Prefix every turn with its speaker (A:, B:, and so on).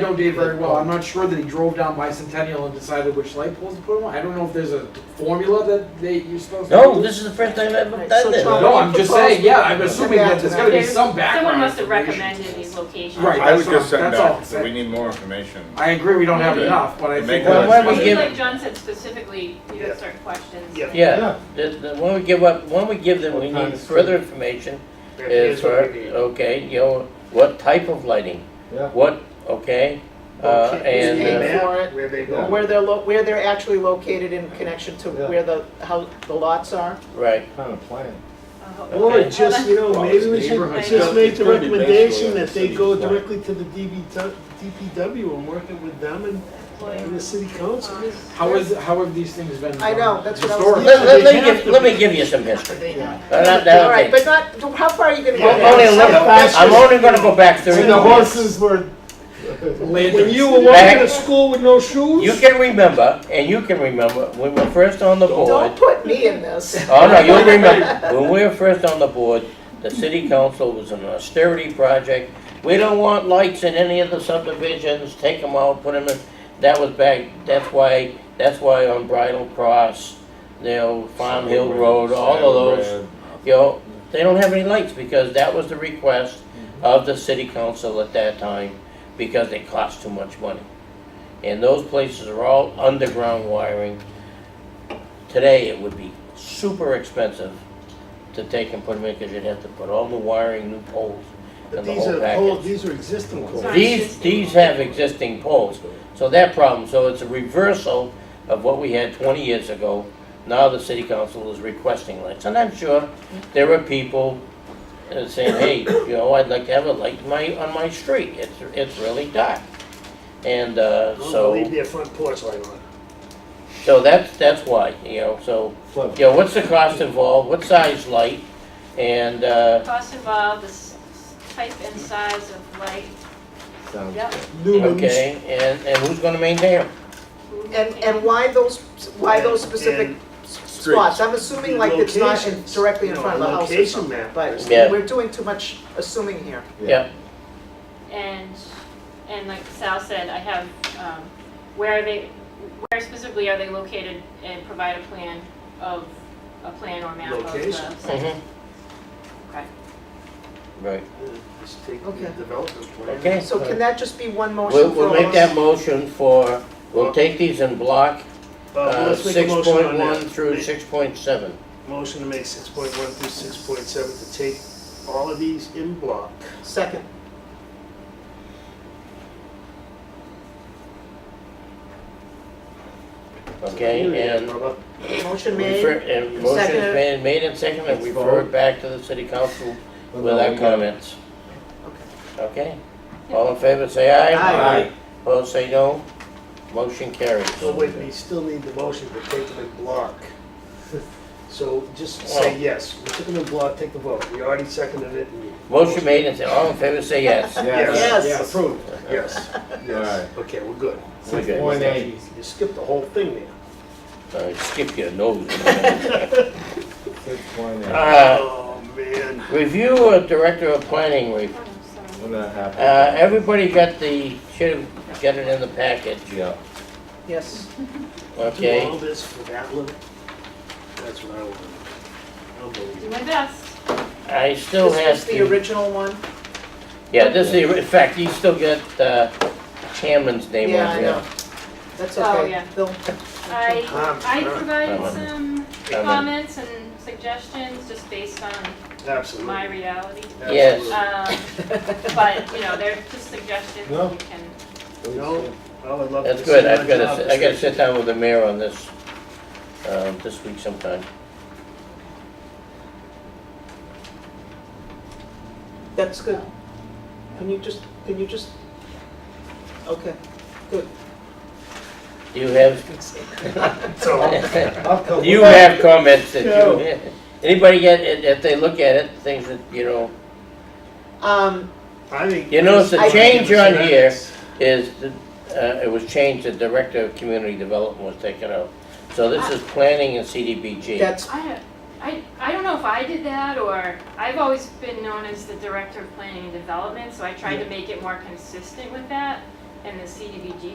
A: I know Dave very well, I'm not sure that he drove down Bicentennial and decided which light poles to put them on, I don't know if there's a formula that they, you're supposed to.
B: No, this is the first time I've ever done this.
A: No, I'm just saying, yeah, I'm assuming that there's gotta be some background.
C: Someone must have
A: information.
C: recommended these locations.
A: Right.
D: I would
A: that's
D: just
A: what
D: send
A: I'm- that's all
D: back,
A: I'm
D: so we
A: saying.
D: need more information.
A: I agree, we don't have
D: Okay.
A: enough, but I
D: To
A: think.
D: make Well,
B: why don't we
C: I
B: give-
C: think like John said specifically, you have certain questions.
E: Yeah.
B: Yeah, the- the- when we give up, when we give them, we
E: What time
B: need
E: is
B: further information
E: There
B: is
E: is
B: for,
E: what we need.
B: okay, you know, what type of lighting?
F: Yeah.
B: What, okay, uh,
G: Is
B: and,
G: payment.
B: uh,
G: uh, for it.
E: Where they
F: Yeah.
E: go.
G: Where they're, lo- where they're actually located in connection to
F: Yeah.
G: where the, how the lots are?
B: right,
F: Kind of plan.
C: Okay.
H: Or just, you know, maybe we should just make the recommendation that they go directly to the DB DPW and work it with them and, and the city council.
C: Um,
A: How is, how have these things been?
G: I know, that's what I was-
A: historically?
B: let, let- let me
H: They have
B: give,
H: to
B: let me
H: be-
B: give you some history.
G: All
B: Uh, that- that-
G: right,
B: okay.
G: but not, how far are you gonna go?
H: Yeah.
B: I'm only a
G: down?
B: little- I'm only gonna go back thirty
H: When the
B: years.
H: horses were,
A: Later.
H: when you were walking to school with no shoes?
B: You can remember, and you can remember, when we were first on the board,
G: Don't put me in this.
B: Oh, no, you'll remember, when we were first on the board, the city council was an austerity project. We don't want lights in any of the subdivisions, take them out, put them in, that was back, that's why, that's why on Bridle Cross, you know, Farm Hill Road, all of those, you know, they don't have any lights, because that was the request of the city council at that time, because they cost too much money. And those places are all underground wiring, Today, it would be super expensive to take and put them in, because you'd have to put all the wiring, new poles,
H: But
B: and the
H: these
B: whole
H: are, old-
B: package.
H: these are existing poles.
C: Sorry.
B: These, these have existing poles, so that problem, so it's a reversal of what we had twenty years ago. Now the city council is requesting lights, and I'm sure there are people uh, saying, hey, you know, I'd like to have a light in my, on my street, it's, it's really dark. And, uh,
H: Don't leave
B: so,
H: their front porch light on.
B: so that's, that's why, you know, so.
F: Flood.
B: Yeah, what's the cost involved, what size light, and, uh,
C: Cost involved, the s- type and size of light,
F: Sounds
C: yep.
H: Lumens.
B: okay, and, and who's gonna maintain them?
G: And, and why those, why those specific
H: And-
G: spots? I'm assuming like it's not in-
H: Locations.
G: directly in
H: No,
G: front of the house or
H: location
G: something,
H: map.
G: but
B: Yeah.
G: we're doing too much assuming here.
B: Yeah,
C: And, and like Sal said, I have, um, where are they, where specifically are they located and provide a plan of, a plan or map of the
H: Location.
C: site.
B: mhm.
C: Okay.
B: Mm-hmm. Right,
H: Just take the
G: Okay.
H: development plan.
B: okay,
G: So can that just be one
B: we'll,
G: motion for
B: we'll
G: all?
B: make that motion for, we'll take these in block,
H: Uh,
B: uh,
H: let's make a
B: six
H: motion on
B: point
H: that.
B: one through
H: Make-
B: six point seven.
H: Motion to make six point one through six point seven to take all of these in block.
G: Second.
B: Okay,
H: Yeah,
B: and.
H: brother.
G: Motion
B: refer-
G: made.
B: And motion
G: Second.
B: is made, made and seconded, and
F: Let's
B: refer it
F: vote.
B: back to the city council with our comments. Okay,
C: Yeah.
B: all in favor, say aye.
G: Aye.
B: Opposed, say no, motion carries.
H: So wait, we still need the motion to take them in block. So just
B: Oh.
H: say yes, we took them in block, take the vote, we already seconded it. and-
B: Motion made and said, all in favor, say yes.
F: Yes.
G: Yes.
H: Approved, yes,
F: Yes.
H: okay, we're good.
B: We're
F: Six
B: good.
F: point eight.
H: You skipped the whole thing there.
B: Uh, Skip your nose.
F: Six point eight.
B: Uh,
H: Oh, man.
B: Review of director of planning re-
C: Oh, sorry.
F: We're not happy.
B: Uh, everybody got the, should have got it in the package,
F: Yeah.
G: Yes.
H: Do all
B: okay?
H: this for that little, that's what I want. Unbelievable.
C: Do my best.
B: I still
G: This
B: have
G: is the
B: to,
G: original one?
B: yeah, this is, the- in fact, you still got, uh, Hammond's name on
G: Yeah, I
B: here.
G: know. That's
C: Oh,
G: okay.
C: yeah.
G: They'll-
C: I,
H: Um,
C: I
H: sure.
C: provided
B: Um,
C: some comments and suggestions just based on
H: Absolutely.
C: my reality.
B: Yes.
H: Absolutely.
C: Um, but, you know, they're just suggestions
F: No.
C: you can,
H: No, well, I'd love to.
B: That's good,
H: see
B: I've
H: my
B: gotta,
H: job
B: sit- I gotta
H: description.
B: sit down with the mayor on this, um, this week sometime.
G: That's good. Can you just, can you just, okay, good.
B: Do you have,
H: So,
F: I'll come.
B: you
F: with
B: have comments that you, anybody get, if if they look at it, things that, you know,
G: Um,
H: I think.
B: You notice the
H: I think
B: change
H: it's
B: on here.
H: nice.
B: is, the- uh, it was changed, the Director of Community Development was taken out. So this is planning and CDBG.
G: that's,
C: I, don't- I, I don't know if I did that or, I've always been known as the Director of Planning and Development, so I tried to make it more consistent with that. and the CDBG